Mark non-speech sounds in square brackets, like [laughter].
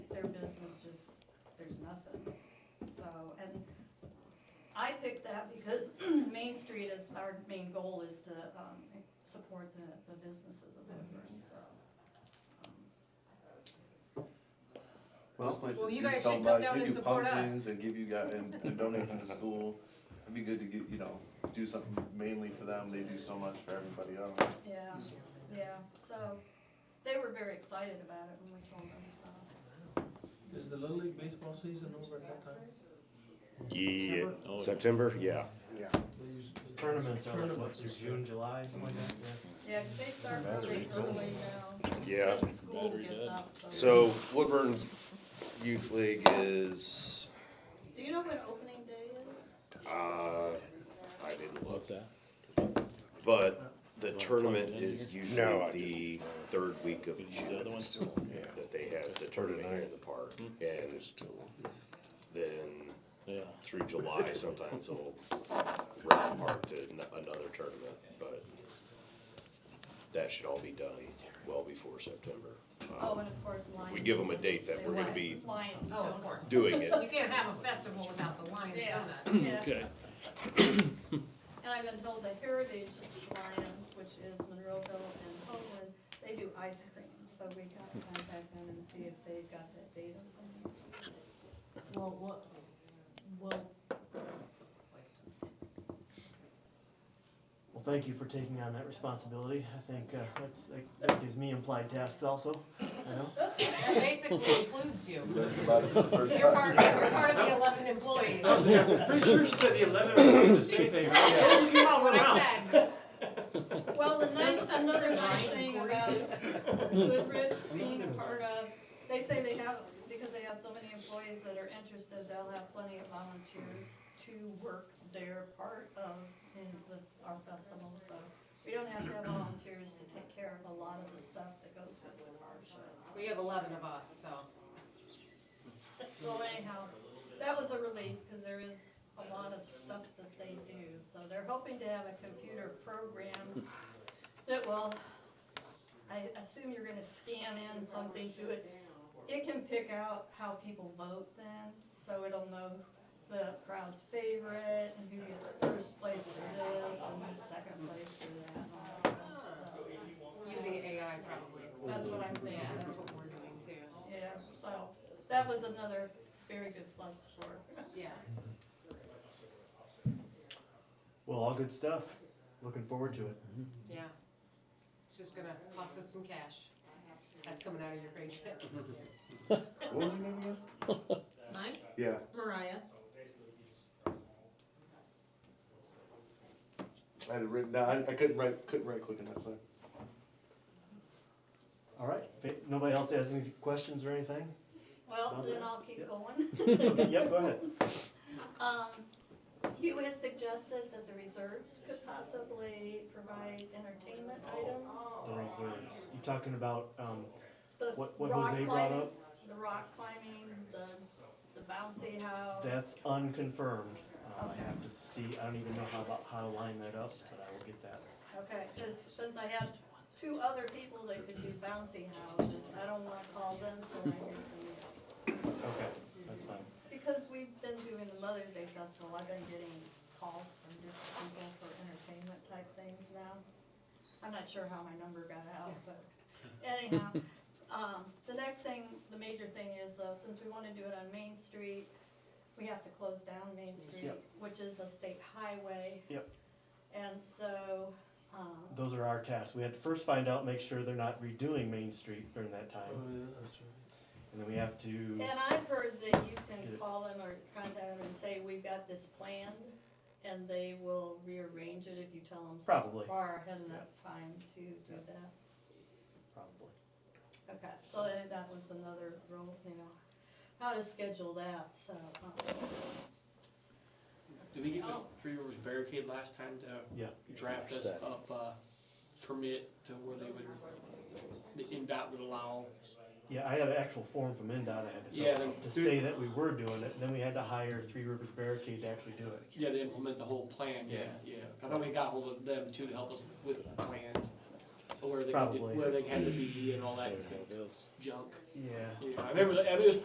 [clears throat] our main goal is to um, support the, the businesses of Woodburn, so. um, Most Well, places you do guys so should come much. down They and do support pumpkins us. and give you guys and, and donate to the [laughs] school. It'd be good to get you know do something mainly for them. They do so much for everybody else. um, Yeah, yeah, so they were very excited about it when we told them, so. Is the Little League baseball season over at that time? Yeah, September? oh, September, yeah, yeah. Tournaments are like, what's your June, July, something like that, yeah. Yeah, 'cause they start That's really really cool. early now. Yeah. Since School Battery gets dead. up, so. So Woodburn Youth League is, Do you know when opening day is? uh, I didn't look, What's that? but the tournament is No, usually I the third week of Use the other June. one? Hmm. Yeah, that they have the tournament here in the park and then Yeah. through July sometimes they'll rent the park to n- another tournament, but that should all be done well before September. Um, Oh, and of course Lions. we give 'em a date that They we're gonna want- be Lions. Oh, don't- of [clears throat] course. Doing it You can't have a festival without the Lions Yeah, Donuts. yeah. Okay. And I've been told the Heritage Lions, which is Monroeville and Homeland, they do ice cream. So we got to contact them and see if they've got that data. Well, what, well, Well, thank you for taking on that responsibility. I think uh, that's, that- that gives me implied tasks also, I know. That basically includes you. first You're part, you're part of the eleven employees, I was that's yeah, pretty sure she said the eleventh, I didn't say anything. [laughs] Yeah. what I said. Well, the nice, another nice thing about Goodrich being a part of, they say they have, because they have so many employees that are interested, they'll have plenty of volunteers to work their part of in the, our festival, so. We don't have to have volunteers to take care of a lot of the stuff that goes with our shows. We have eleven of us, so. Well, anyhow, that was a relief, because there is a lot of stuff that they do, so they're hoping to have a computer program that will, I assume you're gonna scan in something to it. It can pick out how people vote then, so it'll know the crowd's favorite, and who gets first place for this, and second place for that, and all that stuff. So Using AI probably. That's what I'm thinking. Yeah, that's what we're doing too. Yeah, so, that was another very good plus for Yeah. Well, all good stuff. Looking forward to it. Yeah. It's just gonna cost us some cash. That's coming out of your paycheck. What was your name again? mine, Yeah. Mariah, I had it written down. I, I couldn't write couldn't write quick enough. So. All right, if nobody else has any questions or anything? Well, then I'll keep Yep. going. Okay, [laughs] Yep, go ahead. Um, you had suggested that the reserves could possibly provide entertainment items. The reserves. You talking about, um, The What- what rock Jose brought climbing- The rock climbing, the, the bouncy house. that's unconfirmed. Um, I Okay. have to see, I don't even know how, about- how to line that up, but I will get that. Okay, 'cause since I had two other people that could do bouncy houses, I don't wanna call them till I hear from you. Okay, that's fine. Because we've been doing the Mother's Day Festival, I've been getting calls from different people for entertainment type things now. I'm not sure how my number got out, but anyhow, [laughs] um, the next thing, the major thing is though, since we wanna do it on Main Street, we have to close down Main Street, Yep. which is a state highway. Yep. And so, um, Those are our tasks. We have to first find out, make sure they're not redoing Main Street during that Oh, time. yeah, that's right. And then we have to, And I've heard that you Get can it. call them or contact them and say, we've got this planned, and they will rearrange it if you tell them. Probably. Far ahead enough time to do that. probably. Okay, so that that was another rule, you know, how to schedule that, so. um, Did we get the Oh. Three Rivers Barricade last time to Yeah. draft us up a permit to where they would, the NDOT would allow? Yeah, I had an actual form from MnDOT I had to Yeah, fill out they- to say that we were doing it, and then we had to hire Three Rivers Barricade to actually do it. Yeah, they implement the whole plan, yeah, yeah. I thought we got hold of them too to help us with the plan, where they, Probably. where they had to be and all that Everything else. junk. Yeah. Yeah, I remember, I mean, it was